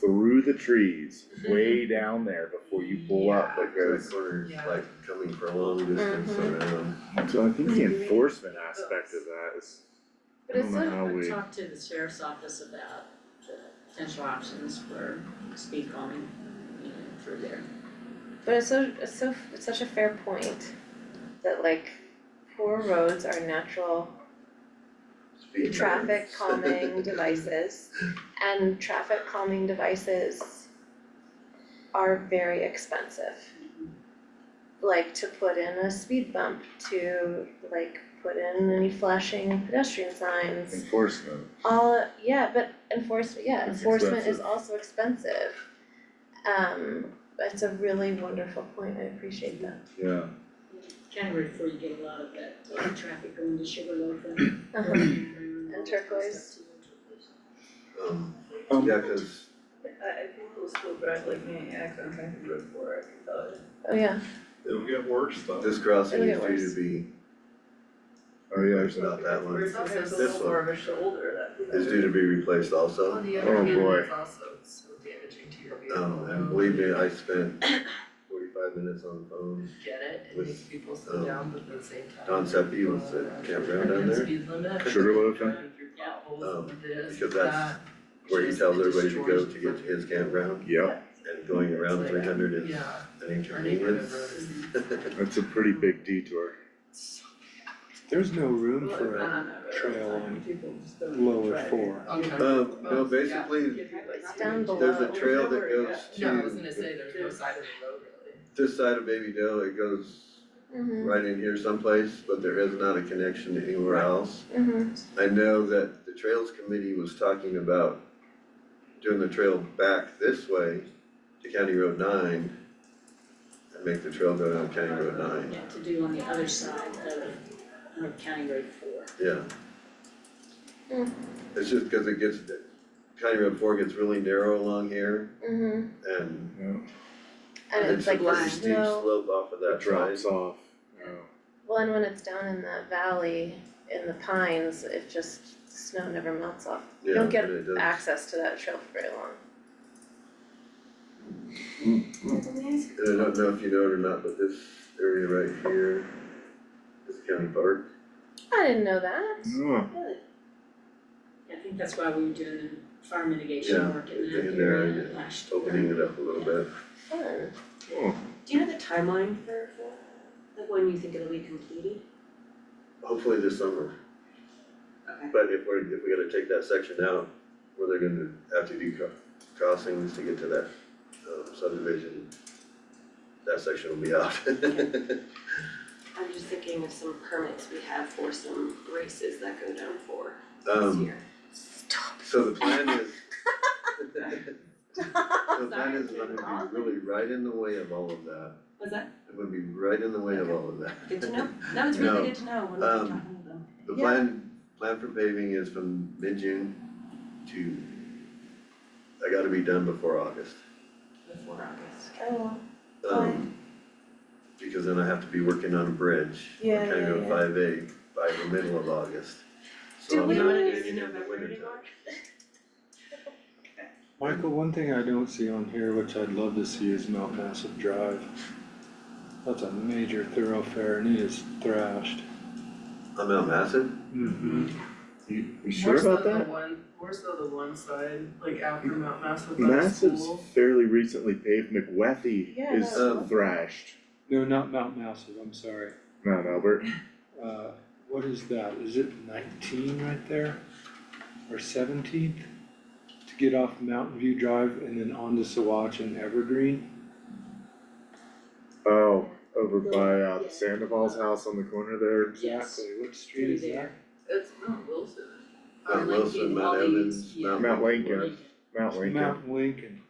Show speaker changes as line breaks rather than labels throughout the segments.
through the trees, way down there before you pull up,
Guys
because.
were
Yeah.
like coming for a long distance
Mm-hmm.
around.
So I think the enforcement aspect of that is,
But it's
I don't know
sort
how
of
we-
talk to the sheriff's office about the potential options for speed calming, you know, through there.
But it's so, it's so, it's such a fair point, that like, poor roads are natural
speed
traffic
bumps.
calming devices. And traffic calming devices are very expensive. Like to put in a speed bump, to like put in any flashing pedestrian signs,
enforcement,
all, Uh, yeah, but enforcement, yeah,
It's
enforcement is
expensive.
also expensive. Um, that's a really wonderful point, I appreciate that.
yeah.
January before you get a lot of that uh, traffic going to Sugarloaf and.
Uh-huh.
And
turquoise.
Um,
Um,
yeah, cause
I I think it was cool, but I was like, man, yeah, I couldn't find the road for it, I thought.
Oh, yeah,
It'll get worse though.
this crossing
It'll
is
get
due
worse.
to be,
Oh, yeah,
it's not that one,
Whereas sometimes a
This
little more of a shoulder that.
is due to be replaced
On
also.
the
Oh,
other hand,
boy.
it's also so damaging to your vehicle.
Um, and believe me, I spent forty-five minutes on the phone.
Get it, it
with,
makes people slow
um,
down, but at the same time. uh,
Don Seppi was at campground down there,
Sugarloaf, huh?
Um, because that's where he tells everybody to go to get to his campground
Yep,
and going around three hundred is
Yeah,
an
our neighborhood road
inconvenience.
is
that's a pretty big detour.
so
There's no room
Well,
for
I
a
don't know,
Um, uh,
it's
trail
like
on
people just don't
lower
try.
four.
Okay.
Um, no, basically,
it's down below.
there's a trail that goes
No, I was
to
gonna say there's no side of the road really.
this side of Baby Doe, it goes
Mm-hmm,
right in here someplace, but there is not a connection to anywhere else.
mm-hmm,
I know that the Trails Committee was talking about doing the trail back this way to County Road nine and make the trail go down County Road nine,
Yeah, to do on the other side of North County Road four.
yeah.
Hmm.
It's just because it gets, County Road four gets really narrow along here
mm-hmm,
and
and it's like the
a steep
snow,
slope off of
It
that side.
drops off, oh.
well, and when it's down in that valley, in the pines, it just, snow never melts off. You don't
Yeah,
get
but it does-
access to that trail for very long.
And I don't know if you know it or not, but this area right here is county park.
I didn't know that.
Oh,
I think that's why we were doing the fire mitigation
Yeah,
work in
it's
that
in there,
area
yeah.
last year.
opening it up a little bit.
Fun.
oh,
Do you know the timeline for for, like when you think it'll be completed?
Hopefully this summer,
Okay.
but if we're, if we gotta take that section out, where they're gonna have to do cro- crossings to get to that um, subdivision, that section will be out.
I'm just thinking of some permits we have for some races that go down for this
Um,
year.
so the plan is. The plan is gonna be really right in the way of all of that.
Was that,
It would be right in the way of all of that.
good to know? No, it's really
No.
good to know when we're
Um,
talking to them.
The
Yeah.
plan, plan for paving is from mid-June to, I gotta be done before August.
before August.
Oh,
Um, Because then I have to be working on a bridge, on
Yeah,
County
yeah,
Road
yeah.
five A by the middle of August.
Do
So I'm
we
not
wanna do
getting it in the winter time.
Michael, one thing I don't see on here, which I'd love to see, is Mount Massive Drive. That's a major thoroughfare and it is thrashed.
On Mount Massic,
Mm-hmm.
you, you sure
More
about
so the
that?
one, more so the one side, like after Mount Massive, that
Massive's
school.
fairly recently paved, McWethy
Yeah,
is
that was lovely.
thrashed,
No, not Mount Massive, I'm sorry.
Mount Albert,
Uh, what is that? Is it nineteen right there? Or seventeenth? To get off Mountain View Drive and then onto Sawatch and Evergreen?
oh, over by uh
Yeah.
the Sandoval's house on the corner there.
Yes.
Exactly, what street is
Through
that?
there.
It's Mount Wilson.
Or
Mount
like
Wilson,
in
Mount
all these,
Evans,
yeah.
Mount.
Mount Lincoln,
Lincoln.
Mount Lincoln,
Mount Lincoln.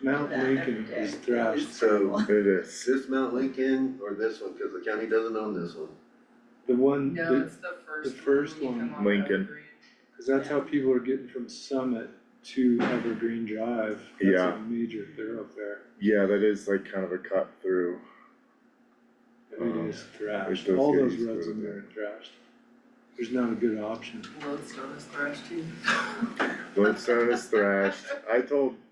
Mount
That
Lincoln
every
is
day.
thrashed,
so
it is,
this Mount Lincoln or this one, cause the county doesn't own this one.
the one,
No,
that-
it's the first.
first
when you
one.
come off
Lincoln.
Evergreen.
cause that's how people are getting from Summit to Evergreen Drive. That's
Yeah.
a major thoroughfare,
yeah, that is like kind of a cut through,
it
Um,
is thrashed,
those
all those
guys go
roads in
there.
there are thrashed. There's not a good option.
Lodestone is thrashed too.
Bloodstone is thrashed, I told